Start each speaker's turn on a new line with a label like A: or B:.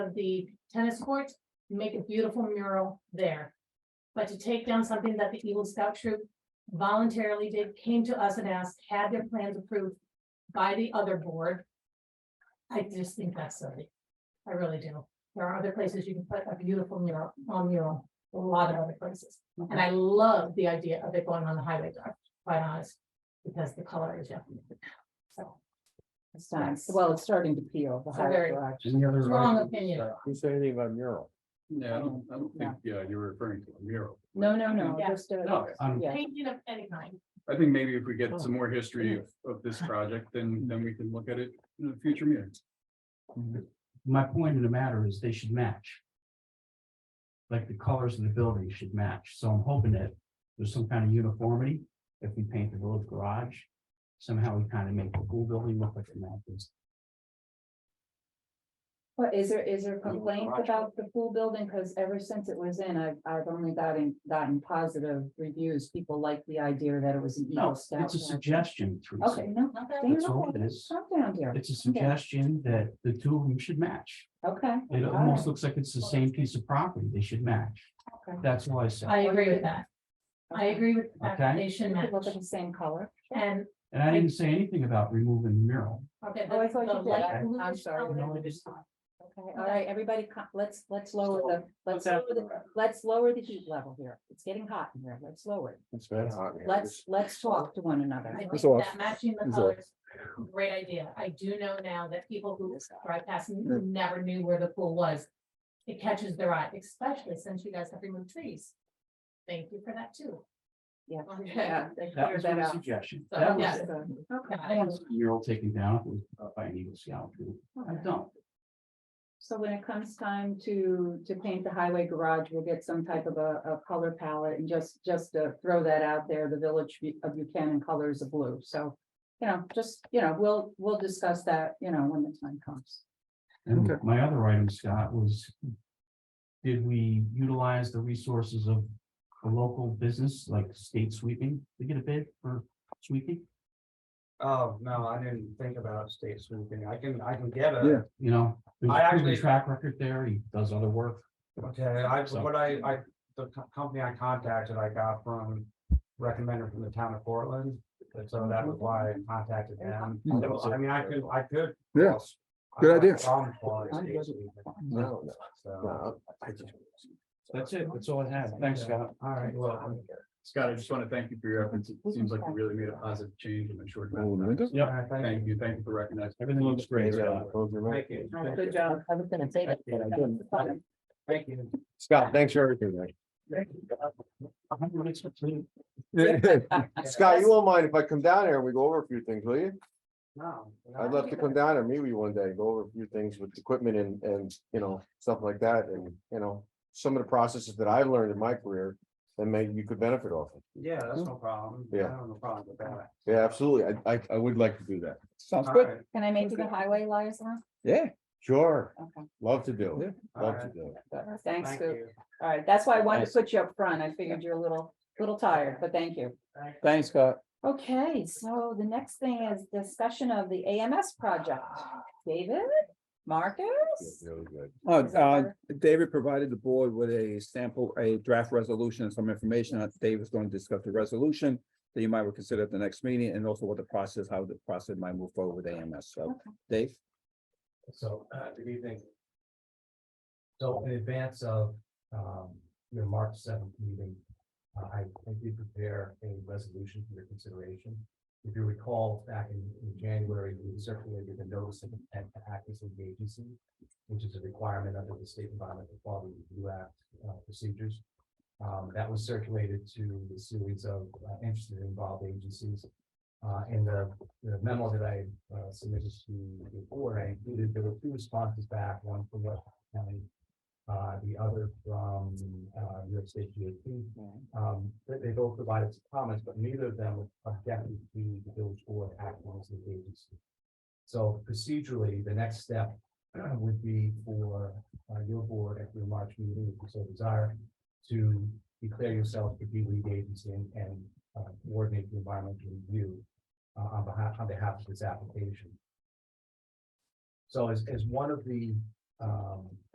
A: of the tennis court, make a beautiful mural there. But to take down something that the Eagle Scout troop voluntarily did, came to us and asked, had their plans approved by the other board. I just think that's silly. I really do. There are other places you can put a beautiful mural, on mural, a lot of other places. And I love the idea of it going on the highway, to be quite honest, because the color is, yeah. So,
B: It's starting, well, it's starting to peel. the
A: So
B: higher
A: very-
B: direction.
C: Any other?
A: Strong
C: items?
A: opinion.
C: Uh, Who said anything about mural?
D: Yeah, I don't, I don't think, yeah, you're referring to a mural.
B: No, no, no,
A: Yeah.
B: just, uh,
D: No, I'm,
B: yeah,
A: painting of any kind.
D: I think maybe if we get some more history of, of this project, then, then we can look at it in a future meeting.
E: My point in the matter is they should match. Like the colors of the building should match, so I'm hoping that there's some kind of uniformity, if we paint the village garage. Somehow we kind of make the whole building look like it matches.
B: but is there, is there complaints about the pool building? Cause ever since it was in, I've, I've only gotten, gotten positive reviews. People like the idea that it was an
E: No,
B: Eagle Scout.
E: it's a suggestion,
B: Okay,
E: Teresa.
B: no,
A: Not
B: they
A: that-
E: That's all
B: know,
E: it is.
B: come down here,
E: It's a suggestion that the two of them should match.
B: okay.
E: It
B: all
E: almost
B: right.
E: looks like it's the same piece of property, they should match.
B: Okay.
E: That's why I said,
A: I agree with that. I agree with the
E: Okay.
A: application
B: They
A: match
B: Look at the same color.
A: and,
E: and I didn't say anything about removing the mural.
A: okay.
B: Oh, I
A: the-
B: thought
A: the
B: you did.
A: light
B: I- I'm
A: bluish
B: sorry.
A: color.
E: No, it is not.
B: Okay, all right, everybody, co- let's, let's lower the, let's,
E: Without
B: lower the-
E: the-
B: let's lower the heat level here. It's getting hot in here. Let's lower it.
C: It's been hot. here.
B: Let's, let's talk to one another.
A: I think
C: It's off.
A: that matching the
C: It's
A: colors, great idea. I do know now that people who drive past
F: Mm.
A: and never knew where the pool was. It catches their eye, especially since you guys have removed trees. Thank you for that too.
B: Yeah.
A: Okay.
B: Yeah, they
E: That
B: cleared
E: was
B: that
E: my
B: out.
E: suggestion.
A: So,
E: That
A: yeah.
E: was, I
A: Okay.
E: want the mural taken down if it was, uh, by an Eagle Scout troop. I don't.
B: So when it comes time to, to paint the highway garage, we'll get some type of a, a color palette and just, just to throw that out there, the village of Buchanan colors of blue. So, you know, just, you know, we'll, we'll discuss that, you know, when the time comes.
E: And
C: Okay.
E: my other item, Scott, was did we utilize the resources of a local business like state sweeping to get a bid for sweeping?
G: Oh, no, I didn't think about state sweeping. I can, I can get
C: Yeah.
G: a,
E: You know, there's
G: I
E: a proven
G: actually-
E: track record there. He does other work.
G: okay, I,
E: So-
G: what I, I, the co- company I contacted, I got from. Recommended from the town of Portland, and so that was why I contacted them.
C: Mm.
G: It was- I mean, I could, I could.
C: Yeah,
G: I
C: good
G: got
C: idea.
G: some for
C: I
G: state
C: guess-
G: sweeping,
C: No, no,
G: so-
C: no, I just-
E: That's it. That's all I have. Thanks, Scott.
G: All right, well,
D: Scott, I just want to thank you for your efforts. It seems like you really made a positive change in a short
C: Roll the
D: amount of time.
C: window?
G: all
E: Yep.
G: right, thank
D: Thank you, thank you for recognizing.
E: Everything looks great.
C: Yeah,
E: Scott.
C: close your
G: you.
C: mouth.
G: Thank you.
B: Good job.
F: I was gonna say that.
C: Yeah, good.
G: Thank you.
C: Scott, thanks for everything. man.
E: I'm gonna make some tea.
C: Scott, you won't mind if I come down here and we go over a few things, will you?
G: No.
C: I'd love to come down and meet with you one day, go over a few things with equipment and, and, you know, stuff like that, and, you know, some of the processes that I learned in my career, and maybe you could benefit off. of.
G: Yeah, that's no problem. I
C: Yeah.
G: don't have a problem with that.
C: Yeah, absolutely. I, I, I would like to do that. Sounds
G: All right,
B: Can I make you the highway liaison?
C: Yeah, sure.
B: Okay,
C: Love to do it.
G: all
C: Love to
G: right,
C: do it.
B: thanks,
G: Thank
B: Scoop.
G: you.
B: All right, that's why I wanted to put you up front. I figured you're a little, little tired, but thank you.
G: Thank you.
C: Thanks, Scott.
B: Okay, so the next thing is discussion of the AMS project. David, Marcus?
C: Really good.
H: Oh, uh, David provided the board with a sample, a draft resolution and some information. on- Dave is going to discuss the resolution that you might consider at the next meeting and also what the process, how the process might move forward with AMS. So, Dave?
G: So, uh, good evening. So in advance of, um, your March seventh meeting, uh, I, I did prepare a resolution for your consideration. If you recall, back in, in January, we circulated the notice of intent to act as an agency, which is a requirement under the State Environmental Quality Review Act, uh, procedures. Um, that was circulated to a series of uh, interested and involved agencies. Uh, and the the memo that I uh, submitted to the board, I included, there were two responses back, one from West County. Uh, the other from, uh, New York State DOT. Um, they, they both provided some comments, but neither of them objected to the village board acting as the agency. So procedurally, the next step would be for, uh, your board at your March meeting, if you so desire, to declare yourself to be lead agency and, and uh, coordinate the environmental review uh, on behalf, on behalf of this application. So as, as one of the, um,